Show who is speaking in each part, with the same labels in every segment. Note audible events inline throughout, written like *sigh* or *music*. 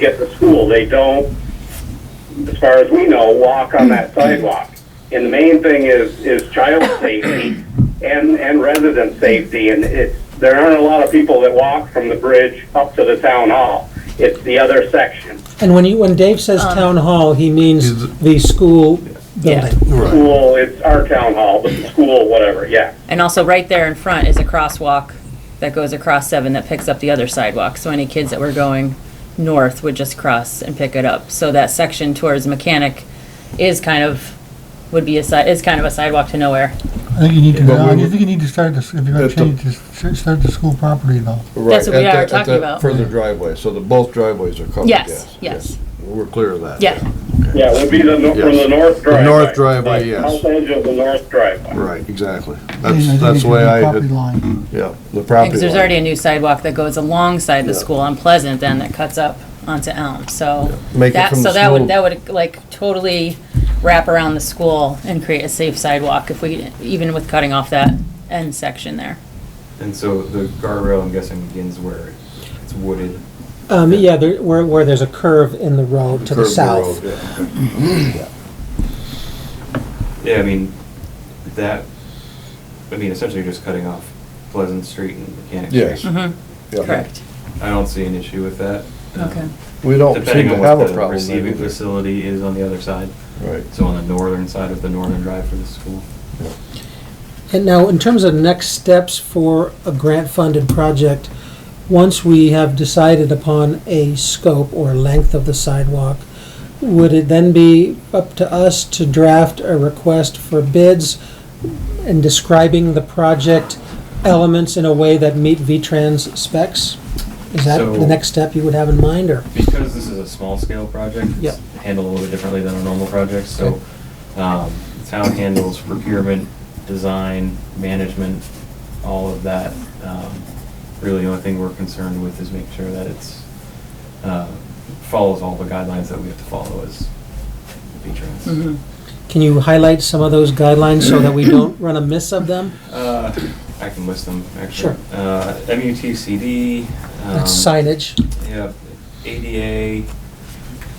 Speaker 1: get to school. They don't, as far as we know, walk on that
Speaker 2: Mm-hmm.
Speaker 1: sidewalk. And the main thing is, is
Speaker 2: *coughs*
Speaker 1: child safety and, and resident safety. And it's, there aren't a lot of people that walk from the bridge up to the town hall. It's the other section,
Speaker 3: And when you, when Dave says town hall, he means the school building.
Speaker 2: Right.
Speaker 1: school, it's our town hall, but the school, whatever, yeah.
Speaker 4: And also, right there in front is a crosswalk that goes across seven that picks up the other sidewalk. So any kids that were going north would just cross and pick it up. So that section towards Mechanic is kind of, would be a side, is kind of a sidewalk to nowhere.
Speaker 5: I think you need to,
Speaker 2: But we
Speaker 5: I
Speaker 2: would-
Speaker 5: think you need to start this, if you're gonna
Speaker 2: At the-
Speaker 5: change, just start the school property though.
Speaker 4: That's what we
Speaker 2: At
Speaker 4: are
Speaker 2: the- at
Speaker 4: talking
Speaker 2: the
Speaker 4: about.
Speaker 2: Further driveway, so the, both driveways are covered,
Speaker 4: Yes,
Speaker 2: yes.
Speaker 4: yes.
Speaker 2: We're clear of that.
Speaker 4: Yeah,
Speaker 1: Yeah, it would be the, no- from the
Speaker 2: Yes.
Speaker 1: north
Speaker 2: The
Speaker 1: driveway.
Speaker 2: north driveway, yes.
Speaker 1: South edge of the north driveway.
Speaker 2: Right, exactly.
Speaker 5: I think
Speaker 2: That's,
Speaker 5: it
Speaker 2: that's
Speaker 5: needs to
Speaker 2: the way
Speaker 5: be
Speaker 2: I,
Speaker 5: Property
Speaker 2: had-
Speaker 5: line.
Speaker 2: yeah, the property
Speaker 4: because there's
Speaker 2: line.
Speaker 4: already a new sidewalk that goes alongside the
Speaker 2: Yeah.
Speaker 4: school on Pleasant then that cuts up onto Elm, so.
Speaker 2: Make it
Speaker 4: that
Speaker 2: from the
Speaker 4: So that
Speaker 2: school-
Speaker 4: would, that would like totally wrap around the school and create a safe sidewalk if we, even with cutting off that end section there.
Speaker 6: And so the guardrail, I'm guessing, begins where it's wooded.
Speaker 3: Um, yeah, there, where, where there's a curve in the road to the
Speaker 2: Curve
Speaker 3: south.
Speaker 2: road, yeah.
Speaker 6: Yeah, I mean, that, I mean, essentially you're just cutting off Pleasant Street and Mechanic
Speaker 2: Yes.
Speaker 6: Street.
Speaker 2: Yeah.
Speaker 4: Correct,
Speaker 6: I don't see an issue with that. um,
Speaker 4: okay.
Speaker 2: We don't seem
Speaker 6: Depending
Speaker 2: to
Speaker 6: on
Speaker 2: have
Speaker 6: what
Speaker 2: a
Speaker 6: the
Speaker 2: problem there
Speaker 6: receiving
Speaker 2: either.
Speaker 6: facility is on the other side,
Speaker 2: Right.
Speaker 6: so on the northern side of the northern drive for the school.
Speaker 3: And now, in terms of next steps for a grant-funded project, once we have decided upon a scope or length of the sidewalk, would it then be up to us to draft a request for bids and describing the project elements in a way that meet V-Trans specs? Is that the
Speaker 6: So-
Speaker 3: next step you would have in mind, or?
Speaker 6: Because this is a small-scale project,
Speaker 3: Yeah.
Speaker 6: it's handled a little bit differently than a normal project, so um, the town handles procurement, design, management, all of that. Um, Really, the only thing we're concerned with is making sure that it's, uh, follows all the guidelines that we have to follow as patrons.
Speaker 3: Mm-hmm.
Speaker 4: Mhm.
Speaker 3: Can you highlight some of those guidelines so that we don't
Speaker 6: *clears throat*
Speaker 3: run amiss of them?
Speaker 6: Uh, I can list them, actually.
Speaker 3: Sure.
Speaker 6: Uh, MUTCD.
Speaker 3: That's
Speaker 6: um,
Speaker 3: signage,
Speaker 6: Yeah, ADA.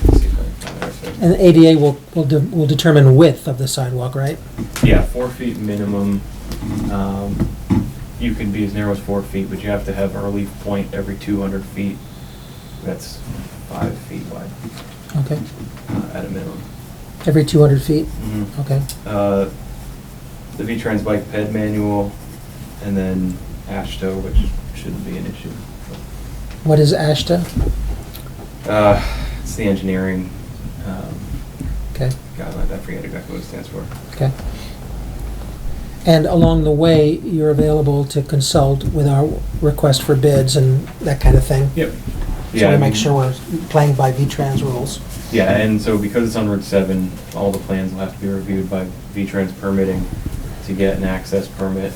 Speaker 6: let's see if I can find it actually.
Speaker 3: and ADA will, will de- will determine width of the sidewalk, right?
Speaker 6: Yeah, four feet minimum. Um, You can be as narrow as four feet, but you have to have a relief point every 200 feet. That's five feet wide
Speaker 3: Okay,
Speaker 6: uh, at a minimum.
Speaker 3: every 200 feet, okay.
Speaker 6: Uh, The V-Trans Bike Ped Manual, and then ASHTO, which shouldn't be an issue.
Speaker 3: What is ASHTA?
Speaker 6: Uh, It's the engineering um,
Speaker 3: Okay,
Speaker 6: guideline, I forget exactly what it stands for.
Speaker 3: okay. And along the way, you're available to consult with our request for bids and that kind of thing?
Speaker 6: Yep.
Speaker 3: So
Speaker 6: Yeah,
Speaker 3: we
Speaker 6: I
Speaker 3: make
Speaker 6: mean- Uh-huh.
Speaker 3: sure we're playing by V-Trans rules.
Speaker 6: Yeah, and so because it's on Route 7, all the plans will have to be reviewed by V-Trans permitting to get an access permit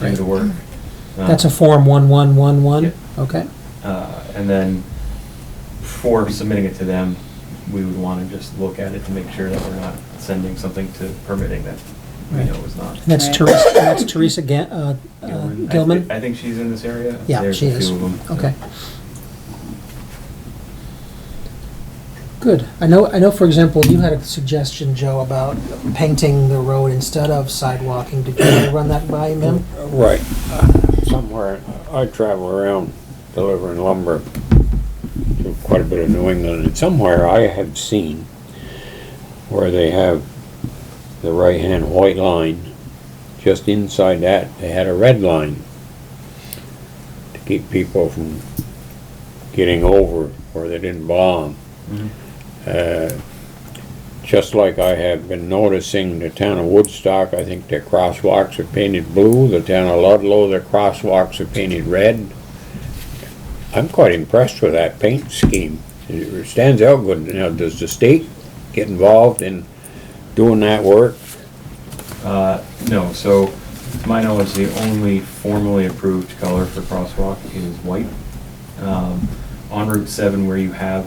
Speaker 6: to do the work. Uh,
Speaker 3: That's a Form 1111?
Speaker 6: Yep.
Speaker 3: Okay,
Speaker 6: uh, And then before submitting it to them, we would want to just look at it to make sure that we're not sending something to permitting that we
Speaker 3: Right.
Speaker 6: know is not.
Speaker 3: and that's
Speaker 4: Right.
Speaker 3: Teresa, that's Teresa Ga- uh, uh,
Speaker 6: Gilman. I thi-
Speaker 3: Gilman?
Speaker 6: I think she's in this area.
Speaker 3: Yeah,
Speaker 6: There's
Speaker 3: she
Speaker 6: a few
Speaker 3: is.
Speaker 6: of 'em, so-
Speaker 3: Okay. Good. I know, I know, for example, you had a suggestion, Joe, about painting the road instead of sidewalking. Did you run that by him?
Speaker 7: Right, somewhere, I travel around delivering lumber to quite a bit of New England, and somewhere I have seen where they have the right-hand white line, just inside that, they had a red line to keep people from getting over where they didn't belong.
Speaker 6: Mhm.
Speaker 7: Uh, Just like I have been noticing, the town of Woodstock, I think their crosswalks are painted blue, the town of Ludlow, their crosswalks are painted red. I'm quite impressed with that paint scheme. It stands out good. Now, does the state get involved in doing that work?
Speaker 6: Uh, No, so to my knowledge, the only formally approved color for crosswalk is white. Um, On Route 7 where you have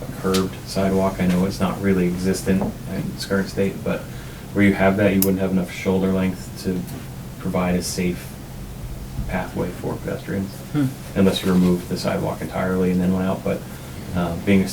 Speaker 6: a curved sidewalk, I know it's not really existent in its current state, but where you have that, you wouldn't have enough shoulder length to provide a safe pathway for pedestrians,
Speaker 4: Hmm.
Speaker 6: unless you remove the sidewalk entirely and then went out, but uh, being a